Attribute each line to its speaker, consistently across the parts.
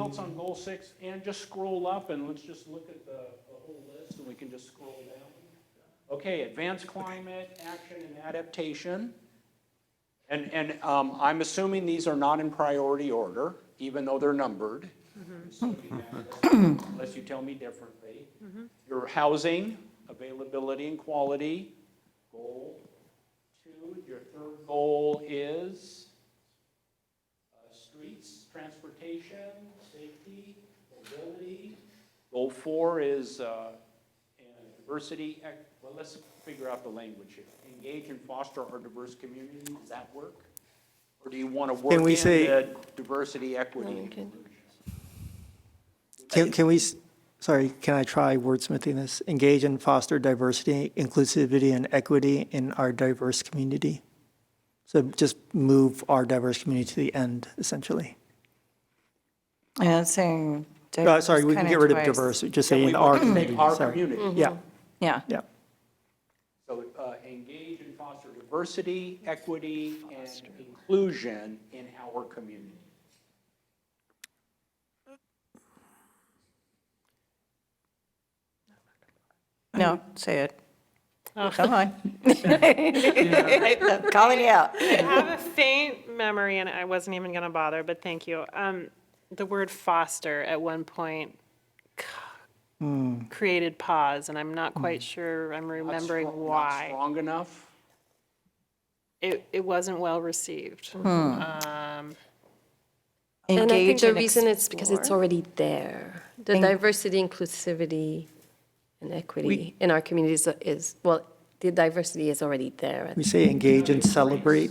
Speaker 1: else on goal six? And just scroll up and let's just look at the, the whole list and we can just scroll down. Okay, advanced climate, action and adaptation. And, and um, I'm assuming these are not in priority order, even though they're numbered. Unless you tell me differently. Your housing, availability and quality, goal two. Your third goal is? uh, streets, transportation, safety, mobility. Goal four is uh, and diversity, ec- well, let's figure out the language here. Engage and foster our diverse community, does that work? Or do you want to work in
Speaker 2: Can we say-
Speaker 1: the diversity, equity, and
Speaker 3: Okay.
Speaker 1: inclusion?
Speaker 2: Can, can we, s- sorry, can I try wordsmithing this? Engage and foster diversity, inclusivity, and equity in our diverse community. So just move our diverse community to the end, essentially.
Speaker 3: Yeah, it's saying.
Speaker 2: Uh, Sorry, we can
Speaker 3: kinda
Speaker 2: get rid of
Speaker 3: twice.
Speaker 2: diverse, just
Speaker 1: Can
Speaker 2: say
Speaker 1: we
Speaker 2: in our
Speaker 1: work in
Speaker 2: community,
Speaker 1: Our
Speaker 2: sorry.
Speaker 1: community.
Speaker 2: Yeah,
Speaker 3: Yeah,
Speaker 2: yeah.
Speaker 1: So uh, engage and foster diversity, equity, and inclusion in our community.
Speaker 3: no, say it.
Speaker 4: Oh.
Speaker 3: Come on. I'm Calling you out.
Speaker 5: I have a faint memory, and I wasn't even going to bother, but thank you. Um, the word foster at one point c- created pause, and I'm not quite sure I'm
Speaker 1: Not
Speaker 5: remembering
Speaker 1: strong- Not
Speaker 5: why.
Speaker 1: strong enough?
Speaker 5: It, it wasn't well received. Um,
Speaker 4: And I think
Speaker 3: Engage
Speaker 4: the
Speaker 3: and
Speaker 4: reason it's because it's
Speaker 3: explore.
Speaker 4: already there. The diversity, inclusivity, and equity in our communities is, well, the diversity is already there.
Speaker 2: We say engage and celebrate.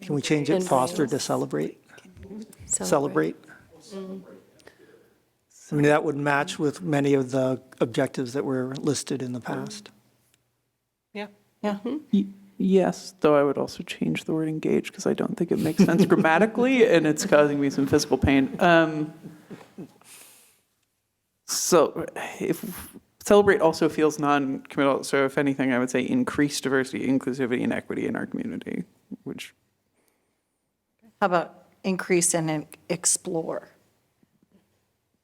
Speaker 2: Can we change it foster to celebrate? Celebrate? I mean, that would match with many of the objectives that were listed in the past.
Speaker 5: yeah.
Speaker 3: Yeah,
Speaker 6: Y- Yes, though I would also change the word engage because I don't think it makes sense grammatically and it's causing me some physical pain. Um, so if celebrate also feels non-committal, so if anything, I would say increase diversity, inclusivity, and equity in our community, which
Speaker 3: how about increase and en- explore?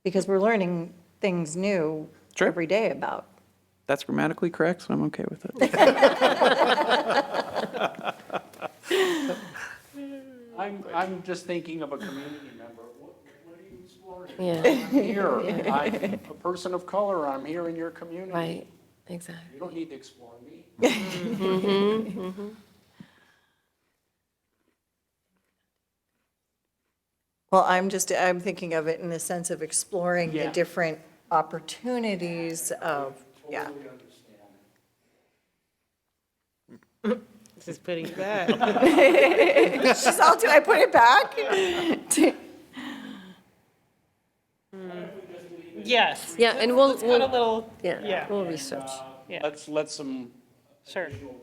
Speaker 3: Because we're learning things new
Speaker 6: Sure.
Speaker 3: every day about.
Speaker 6: that's grammatically correct, so I'm okay with it.
Speaker 1: I'm, I'm just thinking of a community member. What what are you exploring?
Speaker 4: Yeah,
Speaker 1: I'm here. I'm a person of color. I'm here in your community.
Speaker 4: right, exactly.
Speaker 1: You don't need to explore me.
Speaker 3: Well, I'm just, I'm thinking of it in the sense of exploring the
Speaker 1: Yeah.
Speaker 3: different opportunities of, yeah.
Speaker 5: This is pretty bad.
Speaker 3: She's all, do I put it back?
Speaker 5: Yes.
Speaker 4: Yeah, and we'll,
Speaker 5: Got a
Speaker 4: we'll,
Speaker 5: little,
Speaker 4: yeah,
Speaker 5: yeah.
Speaker 4: we'll research.
Speaker 5: Yeah.
Speaker 1: Let's let some
Speaker 5: sure.
Speaker 1: additional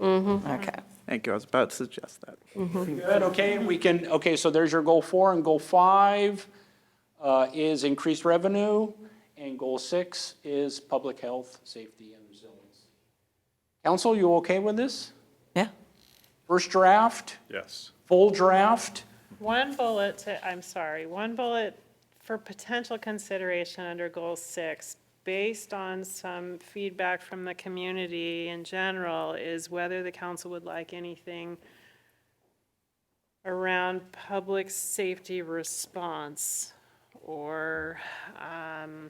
Speaker 1: wordsmithing.
Speaker 3: Okay.
Speaker 6: Thank you, I was about to suggest that.
Speaker 1: Good, okay, we can, okay, so there's your goal four, and goal five uh, is increased revenue, and goal six is public health, safety, and resilience. Council, you okay with this?
Speaker 3: Yeah.
Speaker 1: First draft,
Speaker 7: Yes.
Speaker 1: full draft?
Speaker 5: One bullet to, I'm sorry, one bullet for potential consideration under goal six, based on some feedback from the community in general, is whether the council would like anything around public safety response or, um,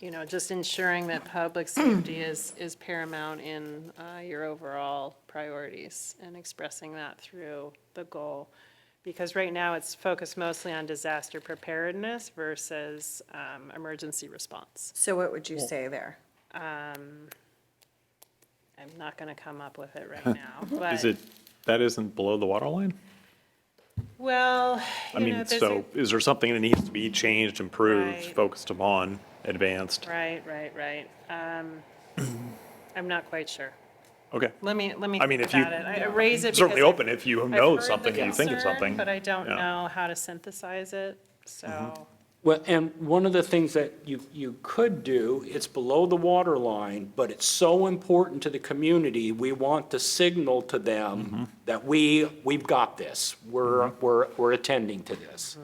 Speaker 5: you know, just ensuring that public safety is, is paramount in uh, your overall priorities and expressing that through the goal. Because right now, it's focused mostly on disaster preparedness versus um, emergency response.
Speaker 3: So what would you say there?
Speaker 5: Um, I'm not going to come up with it right now, but.
Speaker 7: Is it, that isn't below the water line?
Speaker 5: Well,
Speaker 7: I
Speaker 5: you know,
Speaker 7: mean,
Speaker 5: there's a-
Speaker 7: so is there something that needs to be changed, improved,
Speaker 5: Right.
Speaker 7: focused upon, advanced?
Speaker 5: Right, right, right. Um, I'm not quite sure.
Speaker 7: Okay.
Speaker 5: Let me, let me
Speaker 7: I mean,
Speaker 5: think
Speaker 7: if you-
Speaker 5: about it. I raise it.
Speaker 7: Certainly
Speaker 5: because I've-
Speaker 7: open if you
Speaker 5: I've
Speaker 7: know
Speaker 5: heard the
Speaker 7: something, you think of
Speaker 5: concern,
Speaker 7: something.
Speaker 5: But I don't
Speaker 7: Yeah. Mm-hmm.
Speaker 5: know how to synthesize it, so,
Speaker 8: Well, and one of the things that you, you could do, it's below the water line, but it's so important to the community, we want to signal to them that we, we've got this, we're, we're, we're attending to this.